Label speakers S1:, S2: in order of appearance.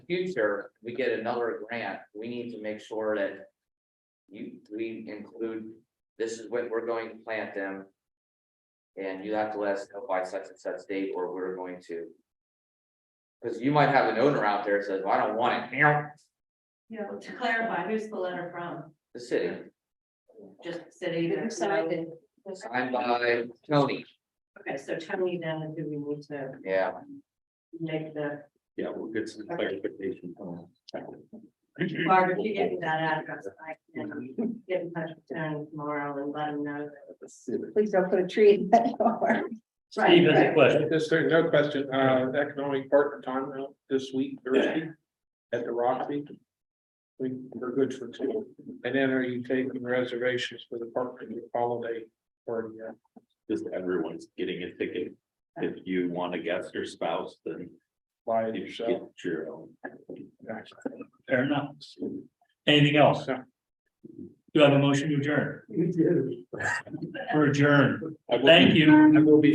S1: future, we get another grant, we need to make sure that. You, we include, this is what we're going to plant them. And you have to let us know by such and such date, or we're going to. Cause you might have an owner out there that says, "Well, I don't want it,
S2: You know, to clarify, who's the letter from?
S1: the city,
S2: Just city.
S3: Who
S2: there's no-
S3: signed it?
S1: signed by Tony,
S2: Okay, so tell me then, do we need to
S1: yeah,
S2: make the,
S4: Yeah, we'll get some clarification. on that.
S2: Barbara, if you get me that address, I can get in touch with Tony tomorrow and let him know.
S3: Please don't put a tree in that door.
S2: Steve has a
S5: But This, there's no question, uh, economic partner time out this week, Thursday, at the Roxy. We, we're good for two, and then are you taking reservations for the partner holiday uh, party? yet?
S4: Just everyone's getting a ticket. If you want to guest your spouse, then
S5: By
S4: you should
S5: yourself.
S4: get your own.
S6: Fair enough. Anything else? Do you have a motion to adjourn?
S5: You do.
S6: Or adjourn?
S5: I will be-
S6: Thank you.
S5: I will be